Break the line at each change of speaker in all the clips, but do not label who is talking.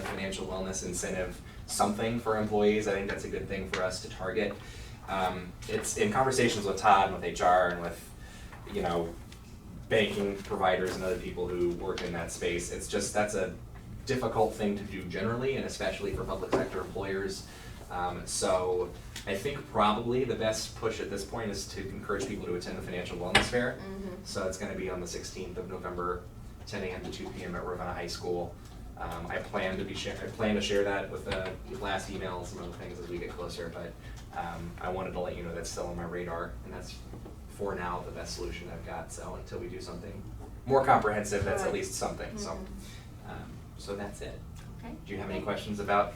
financial wellness incentive something for employees. I think that's a good thing for us to target. Um, it's in conversations with Todd and with HR and with, you know, banking providers and other people who work in that space. It's just, that's a difficult thing to do generally and especially for public sector employers. Um, so I think probably the best push at this point is to encourage people to attend the financial wellness fair. So it's gonna be on the sixteenth of November, ten AM to two PM at Ravenna High School. Um, I plan to be share, I plan to share that with the last email and some other things as we get closer, but, um, I wanted to let you know that's still on my radar and that's for now the best solution I've got, so until we do something more comprehensive, that's at
Right.
least something, so.
Mhm.
Um, so that's it.
Okay. Oh.
Do you have any questions about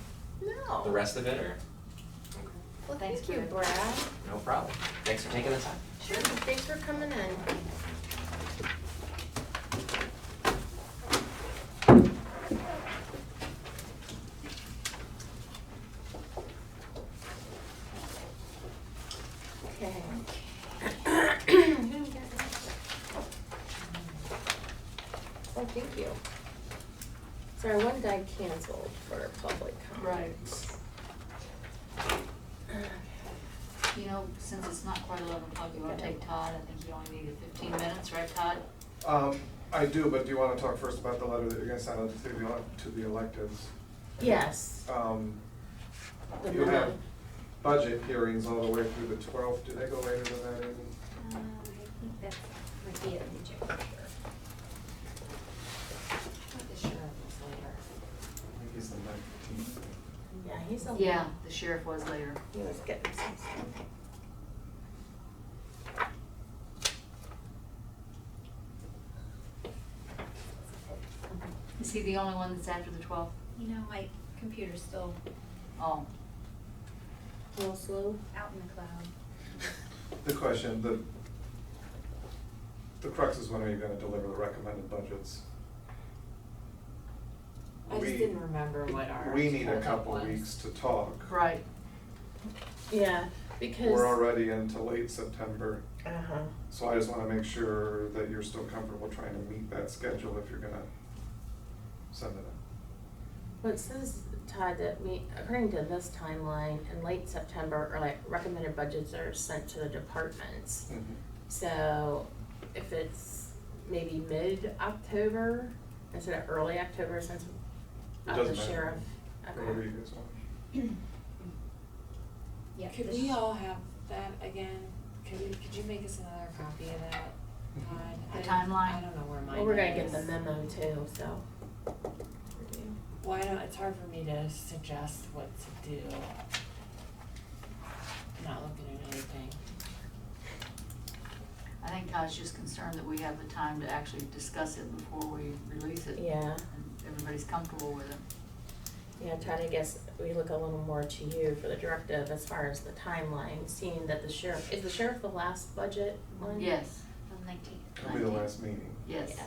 No.
the rest of it or?
Oh.
Okay.
Well,
Thanks,
thank you,
Brad.
Brad.
No problem. Thanks for taking the time.
Sure, thanks for coming in. Okay. Oh, thank you. Sorry, one guy canceled for public comment.
You know, since it's not quite eleven o'clock, you wanna take Todd, I think you only needed fifteen minutes, right Todd?
Um, I do, but do you wanna talk first about the letter that you're gonna send out to the, elec- to the electives?
Yes.
Um,
the
you have
memo.
budget hearings all the way through the twelfth, do they go later than that even?
Um, I think that might be it, let me check for
The
sure.
sheriff was
I think it's the nineteenth.
Yeah, he's a.
later. Yeah, the sheriff was later.
He was getting some stuff.
Is he the only one that's after the twelfth?
You know, my computer's still
Oh,
A little slow.
out in the cloud.
The question, the, the crux is when are you gonna deliver the recommended budgets?
I just
We-
didn't remember what our
We need a
target
couple
was.
weeks to talk.
right.
Yeah, because.
We're already into late September,
Uh-huh.
so I just wanna make sure that you're still comfortable trying to meet that schedule if you're gonna send it out.
Well, it says, Todd, that we, according to this timeline, in late September, or like recommended budgets are sent to the departments. So if it's maybe mid-October instead of early October, since
It
of the
doesn't matter.
sheriff.
Whatever you
Okay.
guys want.
Yeah,
Could
the
we
sh-
all have that again? Could we, could you make us another copy of that? God,
The
I-
timeline?
I don't know where mine is.
Well, we're gonna get the memo too, so.
Why don't, it's hard for me to suggest what to do. Not looking at anything.
I think Todd's just concerned that we have the time to actually discuss it before we release it.
Yeah,
And everybody's comfortable with it.
yeah, Todd, I guess we look a little more to you for the directive as far as the timeline, seeing that the sheriff, is the sheriff the last budget one?
Yes,
on nineteenth.
It'll be the last meeting.
yes.
Yeah.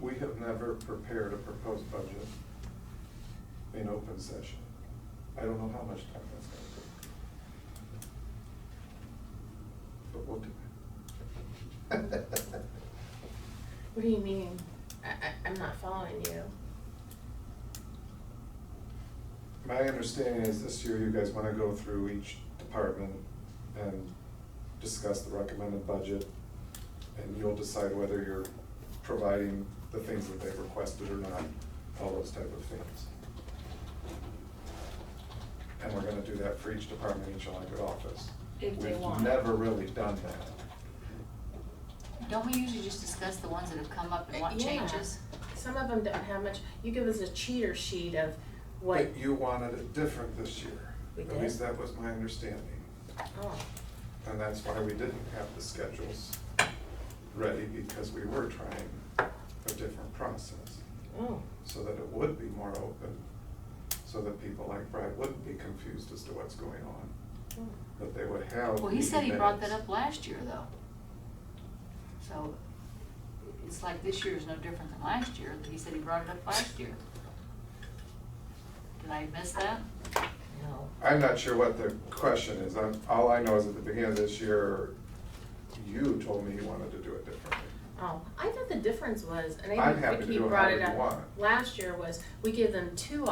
We have never prepared a proposed budget in open session. I don't know how much time that's gonna take. But we'll do it.
What do you mean? I, I, I'm not following you.
My understanding is this year you guys wanna go through each department and discuss the recommended budget. And you'll decide whether you're providing the things that they've requested or not, all those type of things. And we're gonna do that for each department, each elected office.
If they want.
We've never really done that.
Don't we usually just discuss the ones that have come up and what
Yeah.
changes?
Some of them don't have much, you give us a cheater sheet of what,
But you wanted it different this year.
We
At
did?
least that was my understanding.
oh,
And that's why we didn't have the schedules ready, because we were trying a different process,
oh,
so that it would be more open, so that people like Brad wouldn't be confused as to what's going on,
oh.
that they would have.
Hmm. Well, he said he
meeting
brought that
minutes.
up last year though. So it's like this year is no different than last year, but he said he brought it up last year. Did I miss that?
no.
I'm not sure what the question is, I'm, all I know is at the beginning of this year, you told me you wanted to do it differently.
Oh, I thought the difference was, and
I'm
I
happy
think
to
Vicky
do it
brought
however
it
you
up
want.
last year was, we give them two